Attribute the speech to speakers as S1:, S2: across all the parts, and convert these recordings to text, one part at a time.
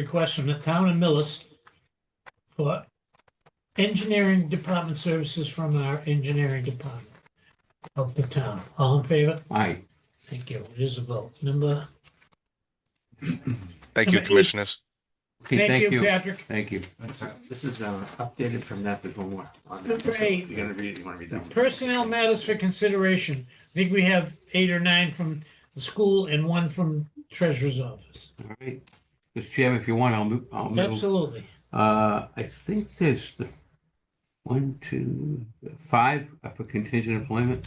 S1: request from the town of Millis for engineering department services from our engineering department of the town. All in favor?
S2: Aye.
S1: Thank you. It is a vote. Number,
S3: Thank you,
S1: Somebody-
S3: commissioners.
S2: Okay,
S1: thank you, Patrick.
S2: Thank you.
S4: That's- This is uh, updated from that, there's one more. on that.
S1: Number eight.
S4: You're gonna read, you wanna read that?
S1: Personnel matters for consideration. I think we have eight or nine from the school and one from treasurer's office.
S2: All right. Mr. Chairman, if you want, I'll move, I'll move.
S1: Absolutely.
S2: Uh, I think there's the one, two, five are for contingent employment.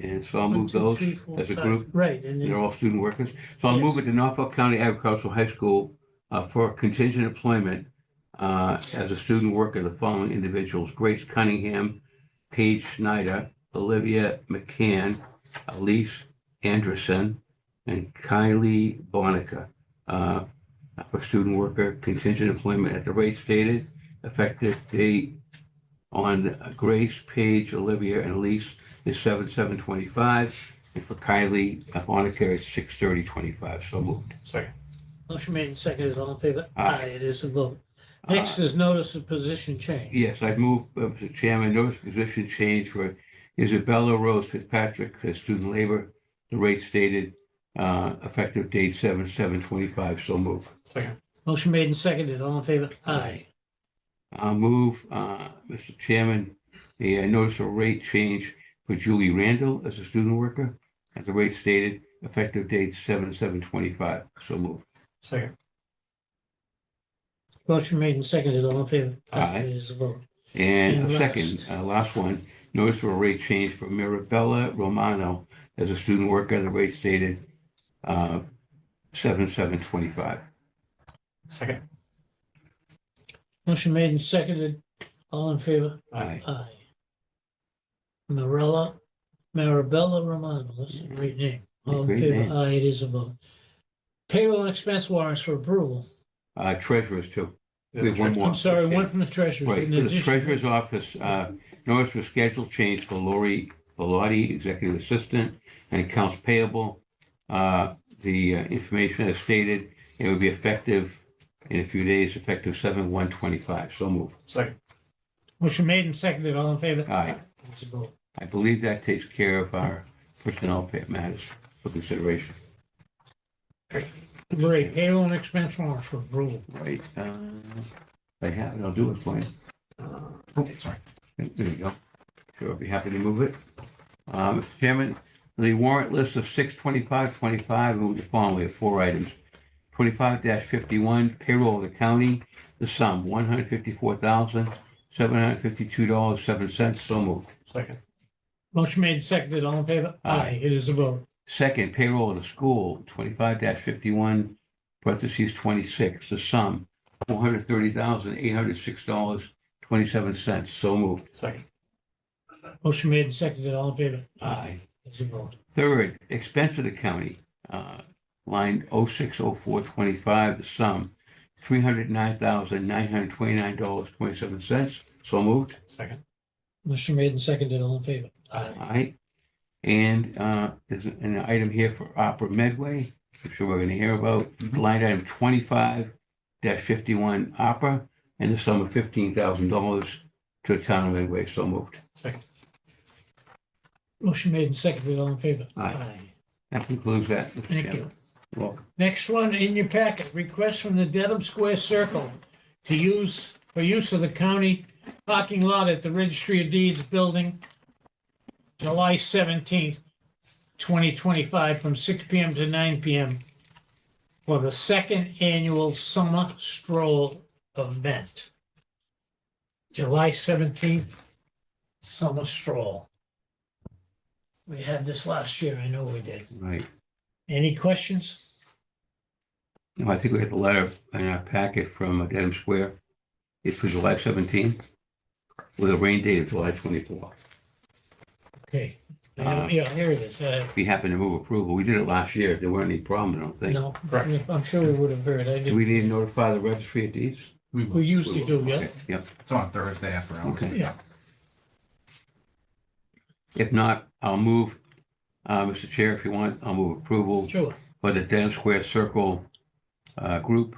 S2: And so I'll
S1: One,
S2: move
S1: two,
S2: those
S1: three, four,
S2: as a
S1: five.
S2: group.
S1: Right, and
S2: They're
S1: then,
S2: all student workers. So I'll move
S1: Yes.
S2: it to Norfolk County Agricultural High School uh, for contingent employment uh, as a student worker, the following individuals, Grace Cunningham, Paige Schneider, Olivia McCann, Elise Anderson, and Kylie Bonica uh, for student worker contingent employment at the rate stated, effective date on Grace, Paige, Olivia, and Elise is seven seven twenty-five. And for Kylie, uh, Monica, it's six thirty twenty-five, so moved.
S4: Second.
S1: motion made and seconded. All in favor?
S2: Aye.
S1: Aye, it is a vote.
S2: Uh,
S1: Next is notice of position change.
S2: Yes, I move, uh, Mr. Chairman, notice position change for Isabella Rose Fitzpatrick as student labor. The rate stated, uh, effective date seven seven twenty-five, so moved.
S4: Second.
S1: Motion made and seconded. All in favor? Aye.
S2: I'll move, uh, Mr. Chairman, a uh, notice of rate change for Julie Randall as a student worker. At the rate stated, effective date seven seven twenty-five, so moved.
S4: Second.
S1: Motion made and seconded, all in favor?
S2: Aye.
S1: It is a vote.
S2: And
S1: And
S2: a second,
S1: last.
S2: uh, last one, notice for a rate change for Mirabella Romano as a student worker, the rate stated uh, 7725.
S4: Second.
S1: Motion made and seconded, all in favor?
S2: Aye.
S1: Aye. Marilla, Marabella Romano, that's a great name. All in
S2: Great name.
S1: favor? Aye, it is a vote. Payroll and expense warrants for approval.
S2: Uh, Treasurers too. We have one more.
S1: I'm sorry,
S2: Let's see.
S1: one from the treasurer.
S2: Right, for the treasurer's office, uh, notice for schedule change for Lori Bellotti, executive assistant, and accounts payable. Uh, The uh, information as stated, it would be effective in a few days, effective 7/125, so moved.
S4: Second.
S1: Motion made and seconded, all in favor?
S2: Aye.
S1: It's a vote.
S2: I believe that takes care of our personnel pa- matters for consideration.
S1: Great, payroll and expense warrants for approval.
S2: Right, uh, if I have it, I'll do it for you. Oh,
S4: Uh, Okay, sorry.
S2: There you go. Sure, I'd be happy to move it. Uh, Mr. Chairman, the warrant list of six twenty-five twenty-five, move the following, we have four items. Twenty-five fifty-one payroll of the county, the sum one hundred fifty-four thousand, seven hundred fifty-two dollars, seven cents, so moved.
S4: Second.
S1: Motion made and seconded, all in favor?
S2: Aye.
S1: Aye, it is a vote.
S2: Second, payroll of the school, twenty-five fifty-one, parentheses twenty-six, the sum, four hundred thirty thousand, eight hundred six dollars, twenty-seven cents, so moved.
S4: Second.
S1: Motion made and seconded, all in favor? It's a vote.
S2: Third, expense of the county, uh, line oh six oh four twenty-five, the sum, three hundred nine thousand, nine hundred twenty-nine dollars, twenty-seven cents, so moved.
S4: Second.
S1: Motion made and seconded, all in favor?
S2: Aye. And, uh, there's an item here for Opera Medway, I'm sure we're gonna hear about,
S1: Mm-hmm.
S4: Mhm.
S2: line item twenty-five fifty-one Opera, and the sum of fifteen thousand dollars to the town of Medway, so moved.
S4: Second.
S1: Motion made and seconded, all in favor?
S2: Aye. That concludes that, Mr.
S1: Thank
S2: Chairman.
S1: you.
S2: You're welcome.
S1: Next one in your packet, request from the Dedham Square Circle to use, for use of the county parking lot at the Registry of Deeds Building, July seventeenth, twenty twenty-five, from six P M to nine P M. For the second annual summer stroll event. July seventeenth, summer stroll. We had this last year, I know we did.
S2: Right.
S1: Any questions?
S2: No, I think we had the letter in our packet from uh, Dedham Square. It's for July 17, with a rain date of July 24.
S1: Okay, I
S2: Uh,
S1: don't- yeah, here it is. Uh,
S2: If you happen to move approval, we did it last year. There weren't any problem, I don't think.
S1: No,
S4: Correct.
S1: I'm sure we would have heard. I
S2: Do
S1: did
S2: we need to notify the registry of deeds?
S1: We usually do, yeah.
S2: Okay, Yep.
S4: It's on Thursday after hours.
S2: Okay.
S1: Yeah.
S2: If not, I'll move, uh, Mr. Chair, if you want, I'll move approval
S1: Sure.
S2: for the Denham Square Circle uh, Group